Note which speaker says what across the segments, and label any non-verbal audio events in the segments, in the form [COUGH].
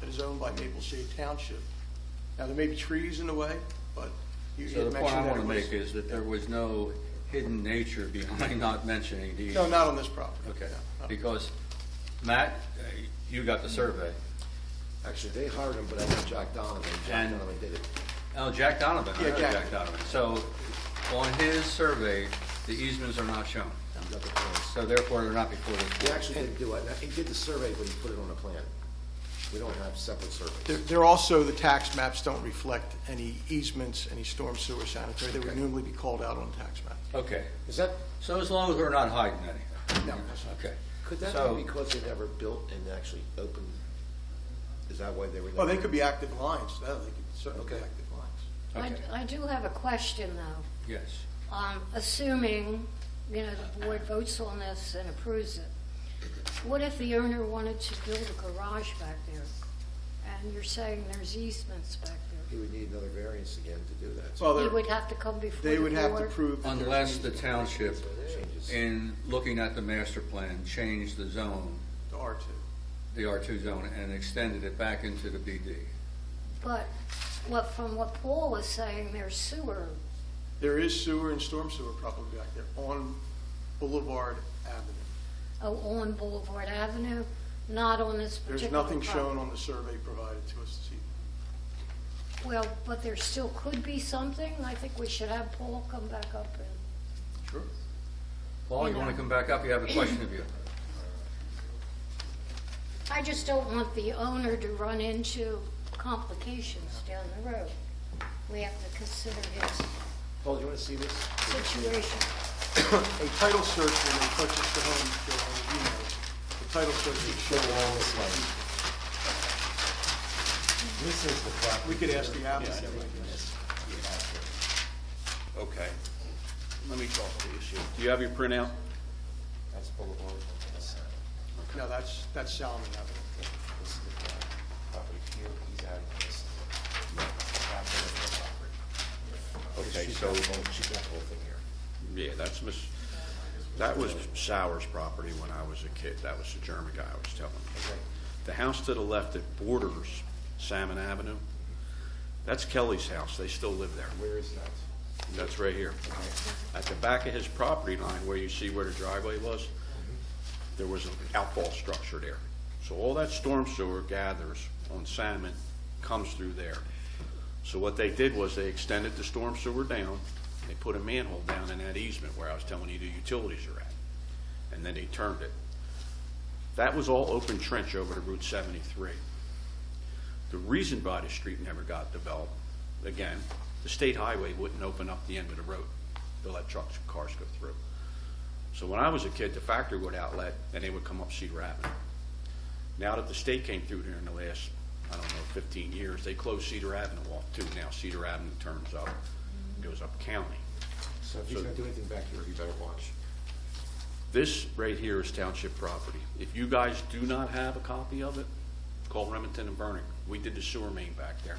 Speaker 1: that is owned by Maple Shade Township. Now, there may be trees in the way, but you you
Speaker 2: So the
Speaker 1: mentioned
Speaker 2: point I
Speaker 1: that
Speaker 2: want
Speaker 1: it
Speaker 2: to make
Speaker 1: was.
Speaker 2: is that there was no hidden nature behind [LAUGHS] not mentioning these.
Speaker 1: No, not on this property.
Speaker 2: Okay,
Speaker 1: No, no.
Speaker 2: because Matt, uh, you got the survey.
Speaker 3: Actually, they hired him, but I think Jack Donovan, Jack
Speaker 2: And-
Speaker 3: Donovan did it.
Speaker 2: Oh, Jack Donovan, I
Speaker 1: Yeah,
Speaker 2: know
Speaker 1: Jack.
Speaker 2: Jack Donovan. So on his survey, the easements are not shown.
Speaker 3: He got the plans.
Speaker 2: So therefore, they're not before this
Speaker 3: He
Speaker 2: board.
Speaker 3: actually didn't do it, Now, he did the survey, but he put it on a plan. We don't have separate
Speaker 1: There-
Speaker 3: surveys.
Speaker 1: There also, the tax maps don't reflect any easements, any storm sewer sanitary. They would
Speaker 2: Okay.
Speaker 1: normally be called out on the tax map.
Speaker 2: Okay,
Speaker 3: Is that,
Speaker 2: so as long as we're not hiding anything.
Speaker 1: No, that's not-
Speaker 2: Okay.
Speaker 3: could that
Speaker 2: So-
Speaker 3: be because they never built and actually opened? Is that why they were?
Speaker 1: Well, they
Speaker 3: never-
Speaker 1: could be active lines, No, they could certainly be
Speaker 3: Okay.
Speaker 1: active lines.
Speaker 2: Okay.
Speaker 4: I, I do have a question, though.
Speaker 2: Yes.
Speaker 4: Um, assuming, you know, the board votes on this and approves it, what if the owner wanted to build a garage back there? And you're saying there's easements back
Speaker 3: He
Speaker 4: there?
Speaker 3: would need another variance again to do that.
Speaker 1: Well,
Speaker 4: He
Speaker 1: they're-
Speaker 4: would have to come before the board?
Speaker 1: they would have to prove. that there's
Speaker 2: Unless
Speaker 1: an
Speaker 2: the township,
Speaker 3: Changes.
Speaker 2: in looking at the master plan, changed the zone,
Speaker 1: easement to R2.
Speaker 2: the R2 zone, and extended it back into the BD.
Speaker 4: But, what, from what Paul was saying, there's sewer,
Speaker 1: There is sewer and storm sewer probably back there on Boulevard Avenue.
Speaker 4: oh, on Boulevard Avenue, not on this
Speaker 1: There's
Speaker 4: particular
Speaker 1: nothing
Speaker 4: property.
Speaker 1: shown on the survey provided to us this evening.
Speaker 4: Well, but there still could be something. I think we should have Paul come back up and
Speaker 1: Sure.
Speaker 2: Paul, you want to come back up? You have a question of you.
Speaker 4: I just don't want the owner to run into complications down the road. We have to consider his
Speaker 3: Paul, do you want to see this?
Speaker 4: situation.
Speaker 1: A title search when they purchased the home, Joe, as you know, the title search would
Speaker 5: Show
Speaker 1: show,
Speaker 5: all this light. This is the property.
Speaker 1: we could ask the
Speaker 5: Yeah, I
Speaker 1: applicant.
Speaker 5: think this-
Speaker 6: Okay. Let me talk to you. Sue. Do you have your printout?
Speaker 5: That's Boulevard. This
Speaker 1: No, that's, that's Salomon Avenue.
Speaker 5: this is the property here, he's out of this.
Speaker 6: Okay,
Speaker 3: She's
Speaker 6: so,
Speaker 3: got the whole- She's got the whole thing here.
Speaker 6: yeah, that's Miss, that was Sauer's property when I was a kid. That was the German guy I was telling you.
Speaker 5: Okay.
Speaker 6: The house to the left that borders Salmon Avenue, that's Kelly's house. They still live there.
Speaker 5: Where is that?
Speaker 6: That's right here. At the back of his property line, where you see where the driveway was, there was an outfall structure there. So all that storm sewer gathers on Salmon comes through there. So what they did was they extended the storm sewer down, they put a manhole down in that easement where I was telling you the utilities are at, and then they turned it. That was all open trench over to Route 73. The reason Body Street never got developed, again, the state highway wouldn't open up the end of the road to let trucks and cars go through. So when I was a kid, the factory would outlet, and they would come up Cedar Avenue. Now that the state came through there in the last, I don't know, 15 years, they closed Cedar Avenue off too. Now Cedar Avenue turns up, goes up county.
Speaker 5: So if he's
Speaker 6: So-
Speaker 5: gonna do anything back here, you better watch.
Speaker 6: This right here is township property. If you guys do not have a copy of it, call Remington and Burning. We did the sewer main back there.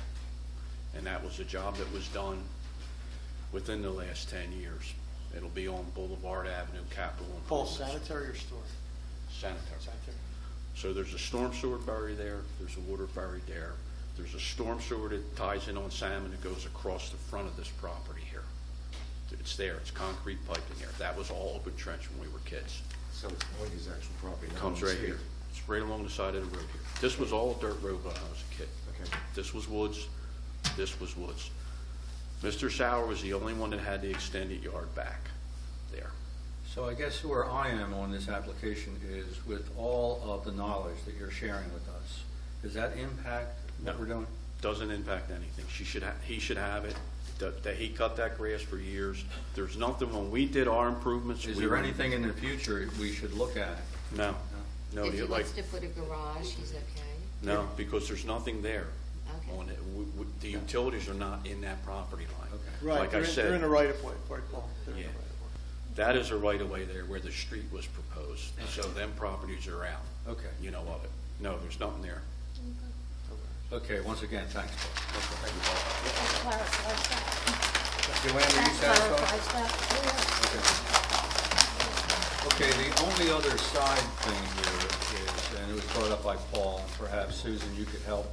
Speaker 6: And that was a job that was done within the last ten years. It'll be on Boulevard Avenue, Capitol. and
Speaker 1: Paul,
Speaker 6: Columbus.
Speaker 1: sanitary or storm?
Speaker 6: Sanitary.
Speaker 1: Sanitary.
Speaker 6: So there's a storm sewer buried there, there's a water buried there. There's a storm sewer that ties in on Salmon that goes across the front of this property here. It's there, it's concrete piped in there. That was all open trench when we were kids.
Speaker 5: So it's on his actual property.
Speaker 6: It
Speaker 5: not
Speaker 6: comes
Speaker 5: on
Speaker 6: right
Speaker 5: the
Speaker 6: here.
Speaker 5: street.
Speaker 6: It's right along the side of the road here. This was all dirt road when I was a kid.
Speaker 5: Okay.
Speaker 6: This was woods, this was woods. Mr. Sauer was the only one that had the extended yard back there.
Speaker 2: So I guess where I am on this application is with all of the knowledge that you're sharing with us, does that impact what
Speaker 6: No.
Speaker 2: we're doing?
Speaker 6: Doesn't impact anything. She should, ha- he should have it, that, that he cut that grass for years. There's nothing, when we did our improvements.
Speaker 2: Is
Speaker 6: we
Speaker 2: there
Speaker 6: were-
Speaker 2: anything in the future we should look at?
Speaker 6: No, no,
Speaker 7: If he
Speaker 6: like,
Speaker 7: wants to put a garage, he's okay.
Speaker 6: no, because there's nothing there.
Speaker 7: Okay.
Speaker 6: On it, We- we- the utilities are not in that property line.
Speaker 2: Okay.
Speaker 1: Right,
Speaker 6: Like I
Speaker 1: they're in-
Speaker 6: said.
Speaker 1: they're in the right of way, right, Paul? They're in the
Speaker 6: Yeah.
Speaker 1: right of way.
Speaker 6: That is a right-of-way there where the street was proposed, so them properties are out.
Speaker 2: Okay.
Speaker 6: You know of it. No, there's nothing there.
Speaker 2: Okay, once again, thanks, Paul.
Speaker 4: That clarifies that.
Speaker 2: Joanne, are you
Speaker 4: That
Speaker 2: satisfied?
Speaker 4: clarifies that.
Speaker 2: Okay, the only other side thing here is, and it was brought up by Paul, and perhaps Susan, you could help